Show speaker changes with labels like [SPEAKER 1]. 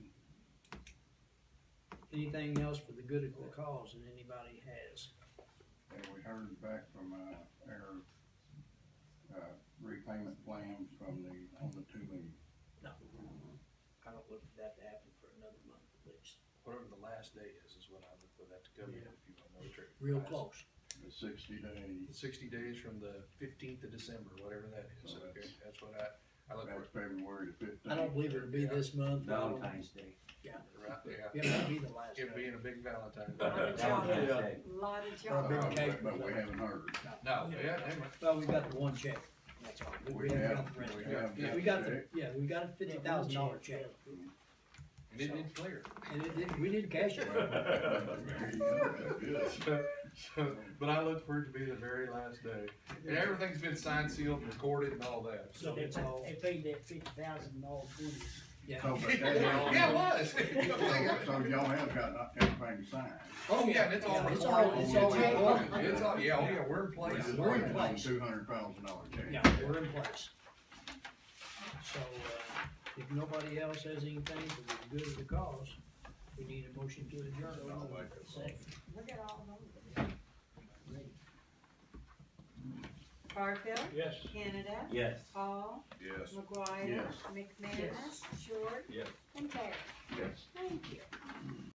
[SPEAKER 1] anything else for the good of the cause that anybody has.
[SPEAKER 2] And we heard back from, uh, their, uh, repayment plan from the, on the tubing.
[SPEAKER 1] No, I don't look for that to happen for another month at least,
[SPEAKER 3] Whatever the last day is, is when I look for that to come in, if you want to know the trick.
[SPEAKER 1] real close.
[SPEAKER 2] the sixty day,
[SPEAKER 3] Sixty days from the fifteenth of December, whatever that is,
[SPEAKER 2] Oh,
[SPEAKER 3] okay,
[SPEAKER 2] that's-
[SPEAKER 3] that's what I, I look for,
[SPEAKER 2] that's February the fifteenth.
[SPEAKER 1] I don't believe it'll be this month. but I don't-
[SPEAKER 4] Valentine's Day.
[SPEAKER 1] Yeah,
[SPEAKER 3] right there.
[SPEAKER 1] it might be the last
[SPEAKER 3] It
[SPEAKER 1] day.
[SPEAKER 3] being a big Valentine.
[SPEAKER 5] Lot of chocolate,
[SPEAKER 4] Yeah.
[SPEAKER 1] Or a
[SPEAKER 5] lot of
[SPEAKER 1] big
[SPEAKER 5] chocolate.
[SPEAKER 1] cake.
[SPEAKER 2] Uh, But we haven't heard.
[SPEAKER 3] No, yeah, never.
[SPEAKER 1] Well, we got the one check, that's all, we we
[SPEAKER 2] We
[SPEAKER 1] haven't
[SPEAKER 2] have,
[SPEAKER 1] got the rest.
[SPEAKER 2] we
[SPEAKER 3] Yeah,
[SPEAKER 2] have.
[SPEAKER 3] yeah,
[SPEAKER 2] that
[SPEAKER 1] We got the,
[SPEAKER 2] check.
[SPEAKER 1] yeah, we got a fifty thousand dollar check,
[SPEAKER 3] and it didn't clear.
[SPEAKER 1] and it, did- we didn't cash it.
[SPEAKER 2] There you go, that's good.
[SPEAKER 3] So, so, but I look for it to be the very last day, and everything's been signed, sealed, recorded and all that.
[SPEAKER 1] So it's all,
[SPEAKER 6] They paid that fifty thousand in all bonus.
[SPEAKER 1] yeah,
[SPEAKER 2] So, but that-
[SPEAKER 3] Yeah, it was.
[SPEAKER 2] So y'all have got everything signed.
[SPEAKER 3] Oh, yeah, and it's all
[SPEAKER 1] It's
[SPEAKER 3] recorded,
[SPEAKER 1] all-
[SPEAKER 3] it's
[SPEAKER 1] it's
[SPEAKER 3] all
[SPEAKER 1] all-
[SPEAKER 3] recorded, it's all, yeah, oh, yeah, we're in
[SPEAKER 2] We
[SPEAKER 3] place.
[SPEAKER 2] just
[SPEAKER 1] We're in
[SPEAKER 2] waited on
[SPEAKER 1] place.
[SPEAKER 2] Two hundred thousand dollar check.
[SPEAKER 1] yeah, we're in place. So, uh, if nobody else has anything for the good of the cause, we need a motion to
[SPEAKER 2] I'll
[SPEAKER 1] adjourn.
[SPEAKER 2] make a-
[SPEAKER 5] Look at all those. Barfield,
[SPEAKER 6] Yes.
[SPEAKER 5] Canada,
[SPEAKER 4] Yes.
[SPEAKER 5] Hall,
[SPEAKER 2] Yes.
[SPEAKER 5] McGuire,
[SPEAKER 2] Yes.
[SPEAKER 5] McManus, Short,
[SPEAKER 3] Yes.
[SPEAKER 5] and Taylor.
[SPEAKER 2] Yes.
[SPEAKER 5] Thank you.